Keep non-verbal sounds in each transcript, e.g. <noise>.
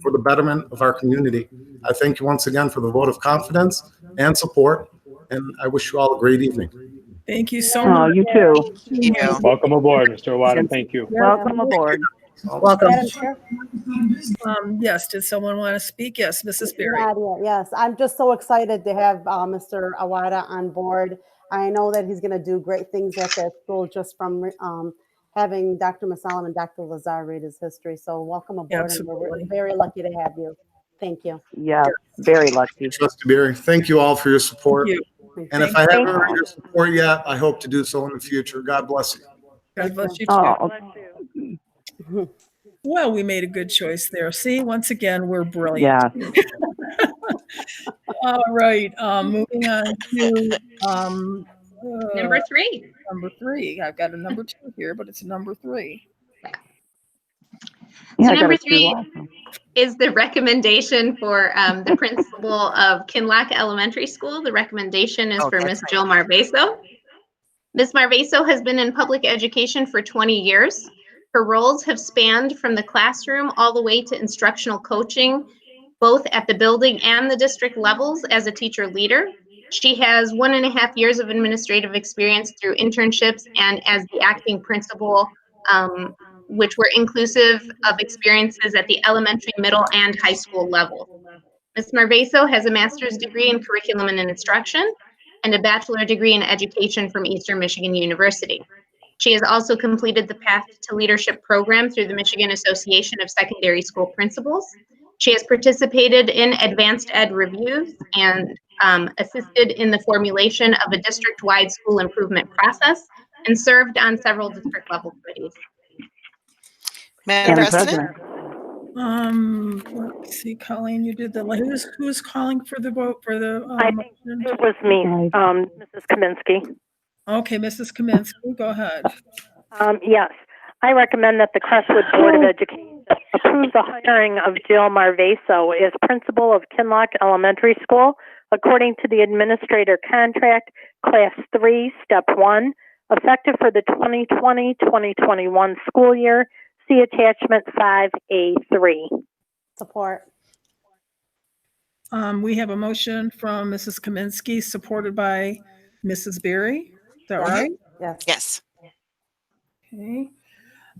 for the betterment of our community. I thank you once again for the vote of confidence and support, and I wish you all a great evening. Thank you so Oh, much. you too. Thank you. Welcome aboard, Mr. Waddam. Thank you. Welcome aboard. Welcome. Madam Chair? Um, yes, did someone want to speak? Yes, Mrs. Berry. Nadia, Yes, I'm just so excited to have uh, Mr. Awada on board. I know that he's going to do great things at that school just from um, having Dr. Masalam and Dr. Lazar read his history. So welcome aboard. and Absolutely. We're very lucky to have you. Thank you. <laughs> Yeah, very lucky. Trustee Berry, thank you all for your support. Thank you. And if I haven't earned your support yet, I hope to do so in the future. God bless you. God bless you too. Oh, Well, we made a good choice there. See, once again, we're brilliant. yeah. All right, um, moving on to, um, uh, Number three, number three. I've got a number two here, but it's a number three. Yeah, I got number a two three- also. is the recommendation for um, the principal of Kinlock Elementary School. The recommendation is Oh, for that's Miss Jill Marvaso. Ms. Marvaso has been in public education for 20 years. Her roles have spanned from the classroom all the way to instructional coaching, both at the building and the district levels as a teacher leader. She has one and a half years of administrative experience through internships and as the acting principal um, which were inclusive of experiences at the elementary, middle, and high school level. Ms. Marvaso has a master's degree in curriculum and instruction and a bachelor degree in education from Eastern Michigan University. She has also completed the Path to Leadership program through the Michigan Association of Secondary School Principals. She has participated in advanced ed reviews and um, assisted in the formulation of a district-wide school improvement process and served on several district-level committees. Madam Madam President, President, Um, let's see, Colleen, you did the, who's, who's calling for the vote for the? um, I think It was me, Right. um, Mrs. Kaminsky. Okay, Mrs. Kaminsky, go ahead. Um, yes, I recommend that the Crestwood Board of Education approve the hiring of Jill Marvaso as principal of Kinlock Elementary School according to the administrator contract, class three, step one, effective for the 2020-2021 school year. See attachment five A three. Support. Um, we have a motion from Mrs. Kaminsky, supported by Mrs. Berry. Is that right? Yes. yes, Okay.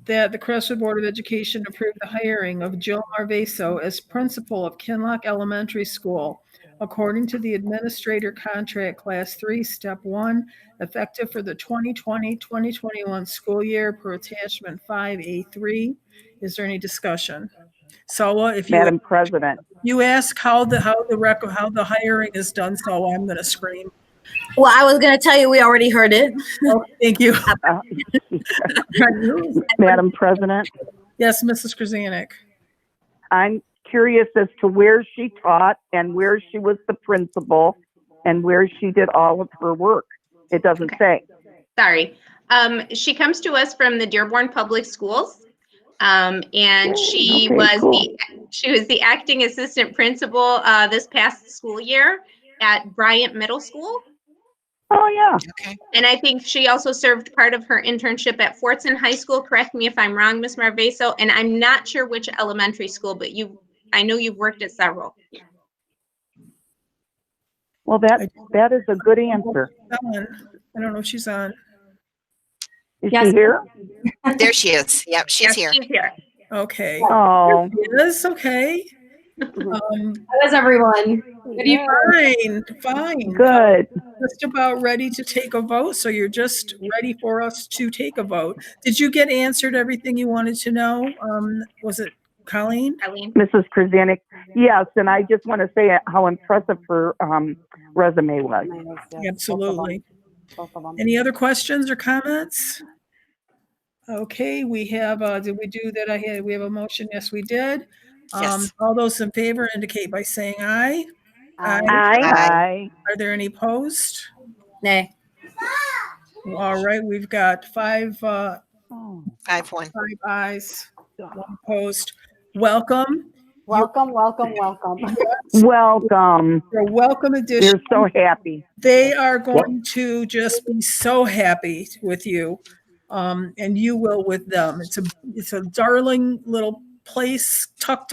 That the Crestwood Board of Education approved the hiring of Jill Marvaso as principal of Kinlock Elementary School according to the Administrator Contract Class 3, Step 1, effective for the 2020-2021 school year per attachment 5A3. Is there any discussion? Sawa, if you, Madam President, you ask how the, how the rec, how the hiring is done, Sawa, I'm going to scream. Well, I was going to tell you, we already heard it. Oh, Thank you. uh, Madam President, Yes, Mrs. Krasanik. I'm curious as to where she taught and where she was the principal and where she did all of her work. It doesn't say. Sorry. Um, she comes to us from the Dearborn Public Schools. Um, and she okay, was cool. the, she was the acting assistant principal, uh, this past school year at Bryant Middle School. Oh, yeah. okay. And I think she also served part of her internship at Fortson High School. Correct me if I'm wrong, Ms. Marvaso, and I'm not sure which elementary school, but you, I know you've worked at several. Well, that, that is a good answer. on. I don't know if she's on. Is she Yes. here? There she is. Yep, she's Yes, here. She's here. Okay. Oh, Yes, okay. Um, How is everyone? Good evening. fine, fine. good. Just about ready to take a vote, so you're just ready for us to take a vote. Did you get answered everything you wanted to know? Um, was it Colleen? Eileen. Mrs. Krasanik, yes, and I just want to say how impressive her um, resume was. Yes, yes, both of 'em, Absolutely. Both of them. Any other questions or comments? Okay, we have, uh, did we do that? I had, we have a motion. Yes, we did. Um, Yes. all those in favor indicate by saying aye. Aye. Aye. Hi. Aye. Are there any opposed? Nay. All right, we've got five, uh, Five one. Five ayes, one opposed. Welcome, Welcome, welcome, welcome. Welcome. your welcome addition. They're so happy. They are going to just be so happy with you. Um, and you will with them. It's a, it's a darling little place tucked